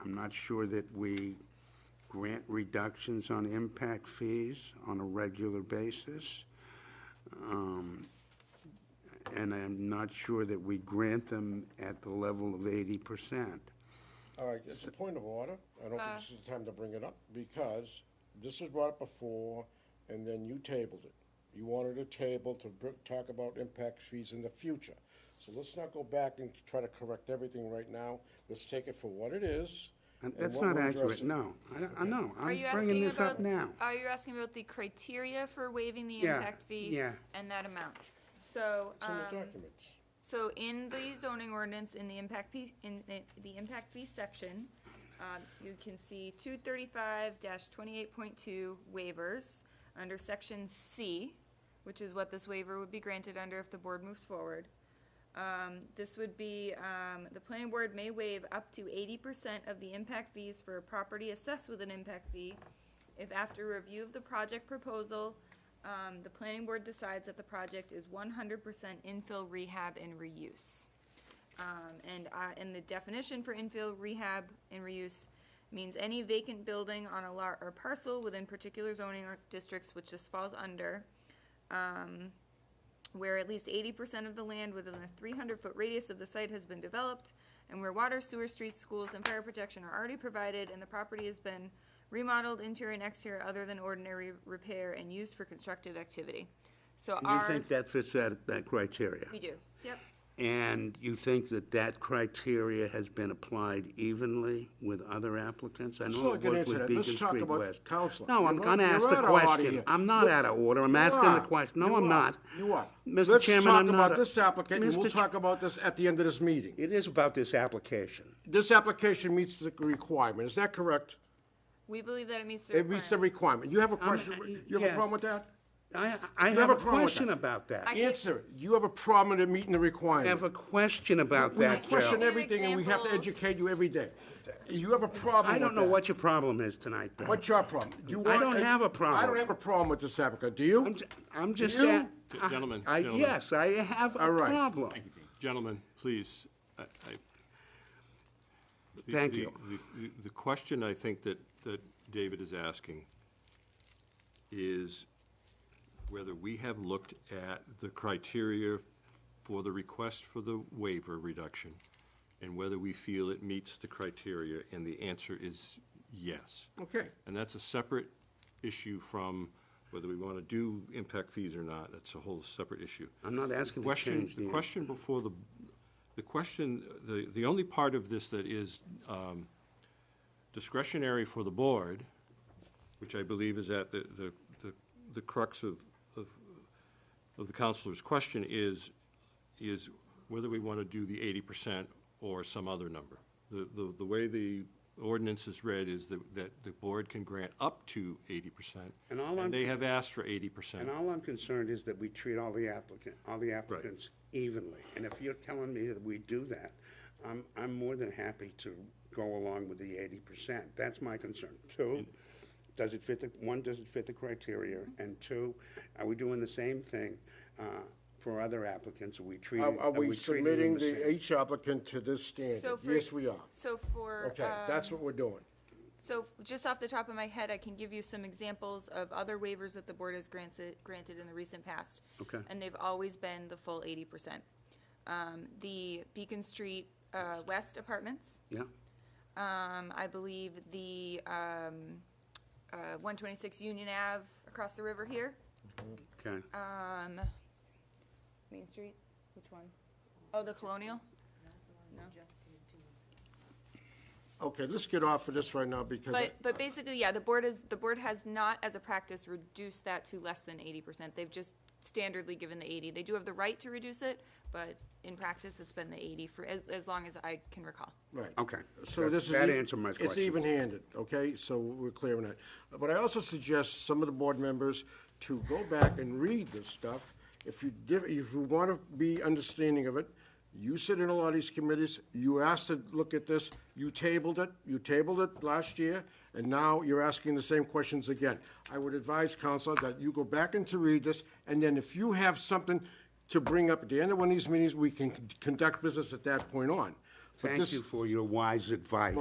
I'm not sure that we grant reductions on impact fees on a regular basis. Um, And I'm not sure that we grant them at the level of eighty percent. All right, it's a point of order. I don't think this is the time to bring it up, because this was brought up before, and then you tabled it. You wanted a table to br- talk about impact fees in the future. So let's not go back and try to correct everything right now. Let's take it for what it is. And and that's what not we're accurate, addressing. no. I, don't- I know, Are I'm you bringing asking this up about, now. are you asking about the criteria for waiving the Yeah, impact fee? yeah. And that amount? So, It's in the um, documents. so in the zoning ordinance, in the impact fee, in the, the impact fee section, um, you can see two thirty-five twenty-eight point two waivers under section C, which is what this waiver would be granted under if the board moves forward. Um, this would be, um, the planning board may waive up to eighty percent of the impact fees for a property assessed with an impact fee if after review of the project proposal, um, the planning board decides that the project is one hundred percent infill rehab and reuse. Um, and, uh, and the definition for infill rehab and reuse means any vacant building on a lot or parcel within particular zoning or districts which this falls under, um, where at least eighty percent of the land within a three hundred foot radius of the site has been developed, and where water, sewer, streets, schools, and fire protection are already provided, and the property has been remodeled interior and exterior other than ordinary repair and used for constructive activity. So You our, think that fits that, that criteria? we do, yep, And you think that that criteria has been applied evenly with other applicants? I Let's know not it get worked into with that. Beacon Let's talk Street about West. counseling. No, I'm You're gonna out- ask you're the out of order question. here. I'm not Look- out of order. I'm You asking the are. question. You No, I'm are. not. You are. Mr. Chairman, I'm Let's talk not. about a- this applicant, and we'll Mr. Ch- talk about this at the end of this meeting. It is about this application. This application meets the requirement. Is that correct? we believe that it meets the It meets the requirement. requirement. You have a question, you have yeah. a problem with that? I, I have have a a problem with question that. about that. I Answer, it. you have a problem with it meeting the have requirement. a question about that, can't Question Give Bill. it- everything, and we have to examples. educate you every day. You have a problem I don't with know that. what your problem is tonight, Bill. What's your problem? You I want don't have a problem. I don't have a problem with this applicant, do you? I'm j- I'm just. You- a- I- Gentlemen, I, gentlemen. yes, I have a All right. problem. Gentlemen, please, I, I. the- Thank the- you. the- The question I think that, that David is asking is whether we have looked at the criteria for the request for the waiver reduction and whether we feel it meets the criteria, and the answer is yes. Okay. And that's a separate issue from whether we want to do impact fees or not. That's a whole separate issue. I'm not asking to Question, change the the question before the, the question, the, the only part of this that is um, discretionary for the board, which I believe is at the, the, the- the crux of, of, of the counselor's question is, is whether we want to do the eighty percent or some other number. The, the, the way the ordinance is read is that, that the board can grant up to eighty percent. And all I'm- they have asked for eighty percent. And all I'm concerned is that we treat all the applicant, all the applicants evenly. And if you're telling me that we do that, I'm, I'm more than happy to go along with the eighty percent. That's my concern. Two, does it fit the, one, does it fit the criteria? And two, are we doing the same thing, uh, for other applicants? Are we treating, Are are are we we treating them submitting the the same? each applicant to this So standard? for- Yes, we are. So for, Okay, um, that's what we're doing. So f- just off the top of my head, I can give you some examples of other waivers that the board has granted, granted in the recent past. Okay. And they've always been the full eighty percent. Um, the Beacon Street, uh, West Apartments, Yeah, um, I believe the, um, uh, one twenty-six Union Ave across the river here, okay. um, Main Street, which one? Oh, the Colonial? Okay, let's get off of this right now, because But, but basically, yeah, the board is, the board has not, as a practice, reduced that to less than eighty percent. They've just standardly given the eighty. They do have the right to reduce it, but in practice, it's been the eighty for, as, as long as I can recall. Right. Okay. So That- this is. that e- answered my It's question. even-handed, okay? So we're clear on that. But I also suggest some of the board members to go back and read this stuff. If you, div- if you want to be understanding of it, you sit in a lot of these committees, you asked to look at this, you tabled it, you tabled it last year, and now you're asking the same questions again. I would advise, Counselor, that you go back and to read this, and then if you have something to bring up at the end of one of these meetings, we can con- conduct business at that point on. But Thank this- you for your wise advice.